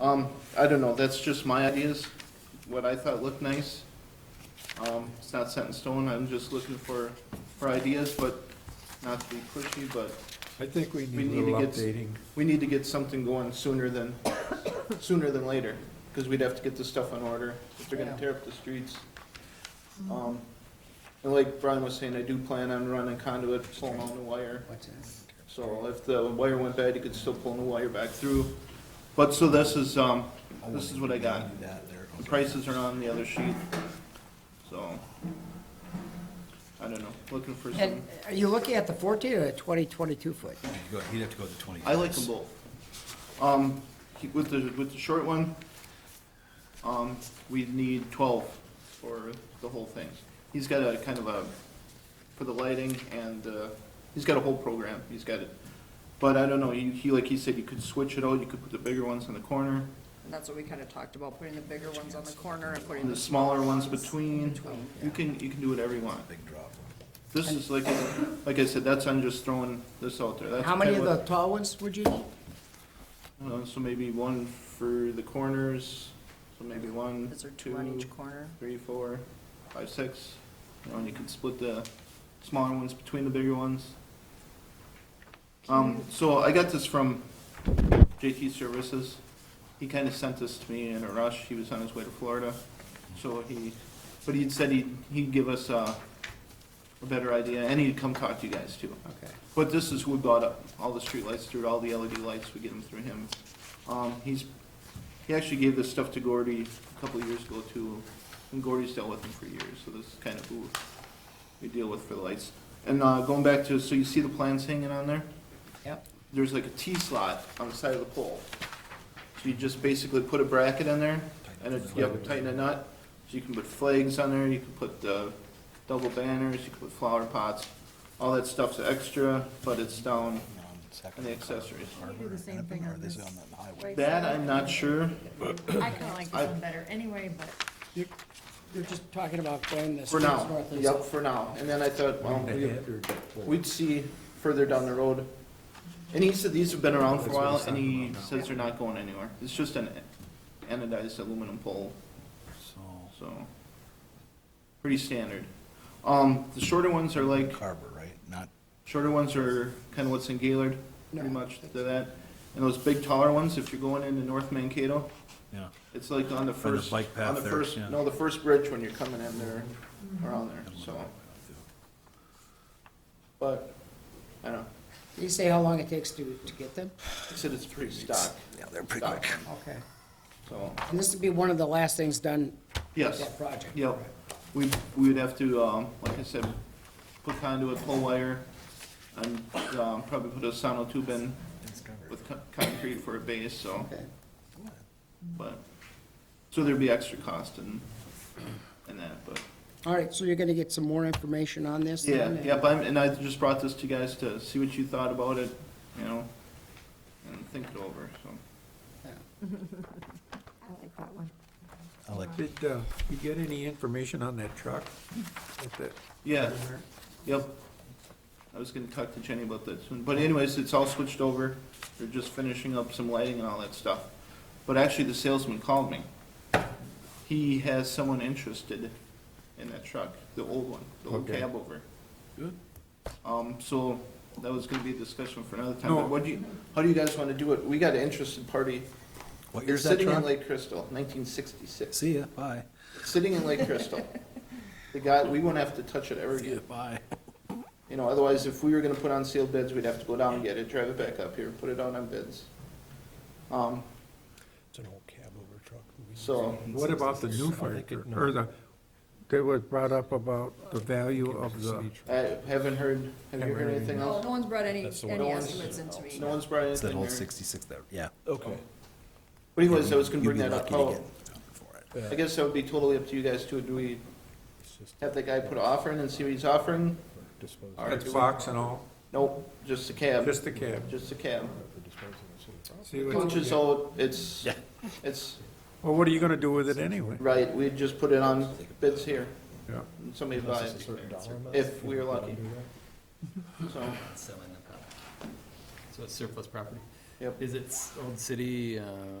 Um, I don't know, that's just my ideas, what I thought looked nice. Um, it's not set in stone, I'm just looking for, for ideas, but not to be pushy, but I think we We need a need to little get, updating. we need to get something going sooner than, sooner than later, because we'd have to get this stuff in order, if they're gonna Yeah. tear up the streets. Um, and like Brian was saying, I do plan on running conduit, pulling on the wire, What's that? so if the wire went bad, you could still pull the wire back through. But, so this is, um, this is what I got. That there. The prices are on the other sheet, so, I don't know, looking for And some, are you looking at the fourteen or the twenty, twenty-two foot? You'd go- He'd have to go to twenty. I like them both. Um, he- with the, with the short one, um, we need twelve for the whole thing. He's got a kind of a, for the lighting and, uh, he's got a whole program, he's got it. But I don't know, he, he, like he said, you could switch it out, you could put the bigger ones in the corner, And that's what we kind of talked about, putting the bigger ones on the corner and putting and the. the smaller ones between. Between, You can, you can do whatever you want. Big drop. This is like, like I said, that's, I'm just throwing this out there. That's How many of kinda the what- tall ones would you need? Uh, so maybe one for the corners, so maybe one, Is there two on two, each corner? three, four, five, six. You know, and you can split the smaller ones between the bigger ones. Um, so I got this from JT Services. He kinda sent this to me in a rush. He was on his way to Florida. So he, but he'd said he'd, he'd give us, uh, a better idea and he'd come talk to you guys too. Okay. But this is who bought up all the streetlights through it, all the LED lights, we get them through him. Um, he's, he actually gave this stuff to Gordy a couple of years ago too, and Gordy's dealt with him for years, so this is kind of who we deal with for the lights. And, uh, going back to, so you see the plans hanging on there? Yep. There's like a T slot on the side of the pole. So you just basically put a bracket in there, and if you have to tighten a nut, so you can put flags on there, you can put the double banners, you can put flower pots, all that stuff's extra, but it's down. And the accessories. Can you do the same thing on this right That I'm not sure, I kinda like I- this one better anyway, but You're, you're just talking about going the for streets now, north and yep, south. for now, and then I thought, well, we- We we'd see further down the road. And he said these have been around for a while, and he says they're not going anywhere, it's just an anodized aluminum pole, so, pretty standard. Um, the shorter ones are like, Carver, right? Not, shorter ones are kinda what's in Gaylord, pretty No. much to that. And those big taller ones, if you're going into North Mankato, yeah. It's like on the By the first, bike on path the there, first, yeah. no, the first bridge when you're coming in there, around there, so, Mm-hmm. but, I don't know. Did you say how long it takes to, to get them? He said it's pretty stock, Yeah, they're pretty stock, quick. Okay. so, And this would be one of the last things done with yes, that project? yep. We, we would have to, um, like I said, put conduit, pull wire, and, um, probably put a sono tube in with co- concrete for a base, so, Okay. but, so there'd be extra cost and, and that, but. All right, so you're gonna get some more information on this Yeah, then? yep, I'm, and I just brought this to you guys to see what you thought about it, you know, and think it over, so. I like that one. I like, Did uh, you get any information on that truck? With that- Yeah, yep. I was gonna talk to Jenny about that soon, but anyways, it's all switched over. They're just finishing up some lighting and all that stuff. But actually, the salesman called me. He has someone interested in that truck, the old one, the old Okay. cab over. Good. Um, so that was gonna be a discussion for another time, No. but what do you, how do you guys wanna do it? We got an interested party. what It's year's that Sitting in truck? Lake Crystal, nineteen sixty-six. See ya, bye. Sitting in Lake Crystal. The guy, we won't have to touch it ever See ya, again. bye. You know, otherwise, if we were gonna put on sealed bids, we'd have to go down and get it, drive it back up here, put it out on bids. Um, It's an old cab over truck. so, What about the new fire truck, or the, that was brought up about the value of the, I haven't heard, have you heard anything No, else? no one's brought any, That's the one. any No one's- estimates into me. No one's brought It's that anything old there. sixty-six there, yeah. Okay. But anyways, I was Oh, gonna You'd bring be that up. lucky to Oh, get something for it. I guess that would be totally up to you guys too. Do we have that guy put an offer in and see what he's offering? Or that do we- box and all, Nope, just a cab, just the cab? just a cab. See what you Which is get. all, it's, it's Well, what are you gonna do with it anyway? Right, we'd just put it on bids here, Yeah. and somebody buy it, if we are lucky, so, selling the property. So it's surplus property. yep. Is it Old City, uh,